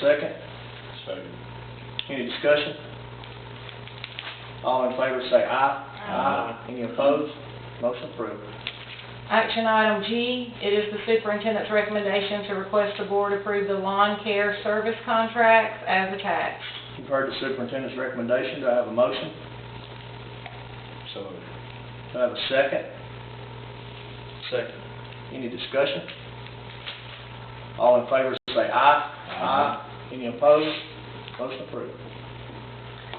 second? Second. Any discussion? All in favor say aye. Aye. Any opposed? Motion approved. Action item G, it is the superintendent's recommendation to request the board approve the lawn care service contracts as attached. You've heard the superintendent's recommendation, do I have a motion? So Do I have a second? Second. Any discussion? All in favor say aye. Aye. Any opposed? Motion approved.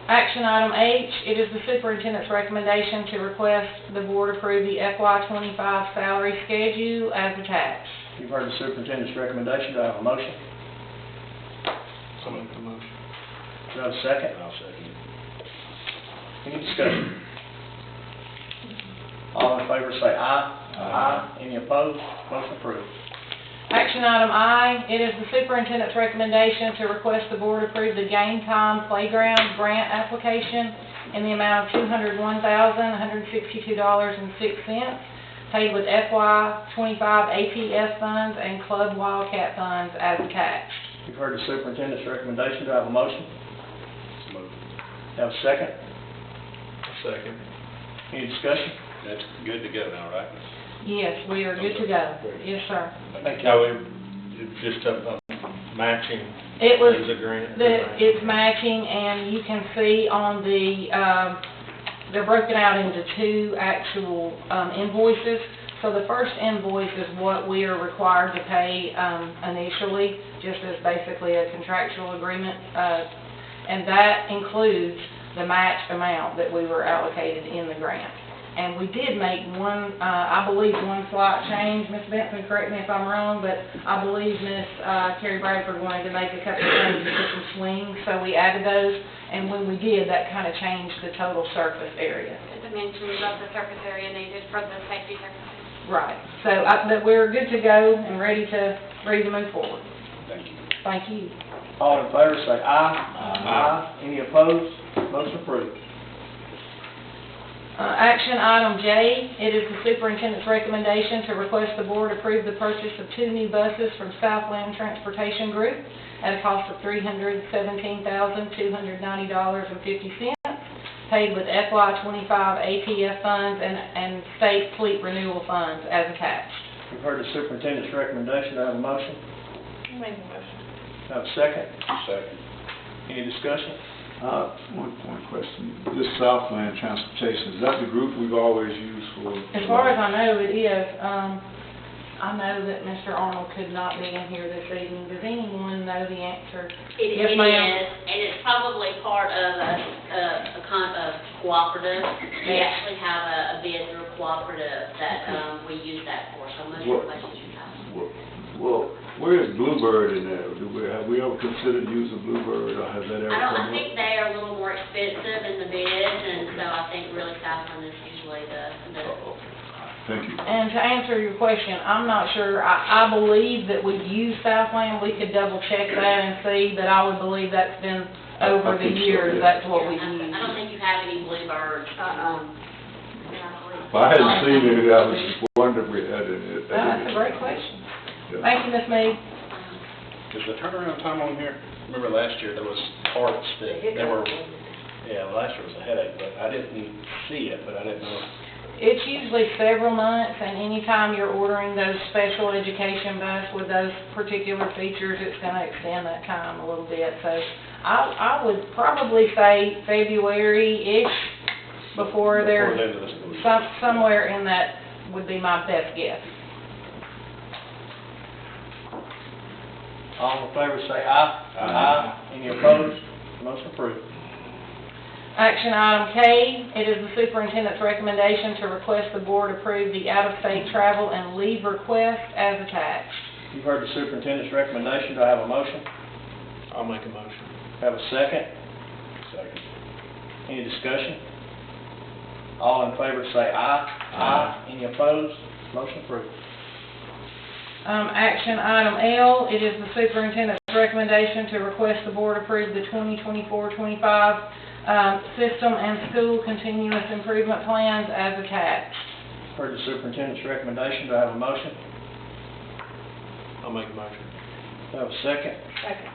Action item H, it is the superintendent's recommendation to request the board approve the FY twenty-five salary schedule as attached. You've heard the superintendent's recommendation, do I have a motion? I'll make the motion. Do I have a second? I'll second it. Any discussion? All in favor say aye. Aye. Any opposed? Motion approved. Action item I, it is the superintendent's recommendation to request the board approve the game time playground grant application in the amount of two hundred one thousand, one hundred sixty-two dollars and six cents, paid with FY twenty-five APS funds and Club Wildcat funds as attached. You've heard the superintendent's recommendation, do I have a motion? So moved. Do I have a second? Second. Any discussion? That's good to go now, right? Yes, we are good to go. Yes, sir. Thank you. Now, we, just a a matching, It was is a grant? that it's matching, and you can see on the, um, they're broken out into two actual um, invoices. So the first invoice is what we are required to pay um, initially, just as basically a contractual agreement. uh, And that includes the match amount that we were allocated in the grant. And we did make one, uh, I believe, one slight change, Ms. Benson, correct me if I'm wrong, but I believe Ms. uh, Carrie Bradford wanted to make a couple of changes to some swings, so we added those, and when we did, that kind of changed the total surface area. the dimensions of the surface area needed for the safety purposes. Right. So, I- but we're good to go and ready to, ready to move forward. Thank you. Thank you. All in favor, say aye. Aye. Any opposed? Motion approved. Uh, Action item J, it is the superintendent's recommendation to request the board approve the purchase of two new buses from Southland Transportation Group at a cost of $317,290.50, paid with FY25 APF funds and and state fleet renewal funds as attached. You've heard the superintendent's recommendation, do I have a motion? Make a motion. Do I have a second? Second. Any discussion? Uh, One one question. This Southland Transportation, is that the group we've always used for? As far as I know, it is. Um, I know that Mr. Arnold could not be in here this evening. Does anyone know the answer? It Yes, it is, ma'am. and it's probably part of a, a- a con, a cooperative. They Yes. actually have a a bid through a cooperative that, um, we use that for, so most of What- the questions you have. Well, where is Bluebird in there? Do we, have we ever considered using Bluebird, or has that ever I don't, I come think up? they are a little more expensive in the bids, and so I think really Southland is usually the, the, Oh, Thank you. And to answer your question, I'm not sure. I, I believe that we've used Southland. We could double check that and see, but I would believe that's been I- I over the think so, years, yeah. that's what we I I don't use. think you have any Bluebirds, um. If I hadn't seen it, I was just wondering if we had it. That's a great question. Yeah. Thank you, Ms. Mead. Is the turnaround time on here, remember last year, there was parts that, they were, yeah, last year was a headache, but I didn't see it, but I didn't know. It's usually several months, and anytime you're ordering those special education bus with those particular features, it's gonna extend that time a little bit, so I, I would probably say February-ish Before before the they're, end of the school year. some, somewhere in that would be my best guess. All in favor say aye. Aye. Any opposed? Motion approved. Action item K, it is the superintendent's recommendation to request the board approve the out-of-state travel and leave request as attached. You've heard the superintendent's recommendation, do I have a motion? I'll make a motion. Do I Have a second? Second. Any discussion? All in favor say aye. Aye. Any opposed? Motion approved. Um, action item L, it is the superintendent's recommendation to request the board approve the 2024-25, um, system and school continuous improvement plans as attached. Heard the superintendent's recommendation, do I have a motion? I'll make a motion. Do I have a second? Second.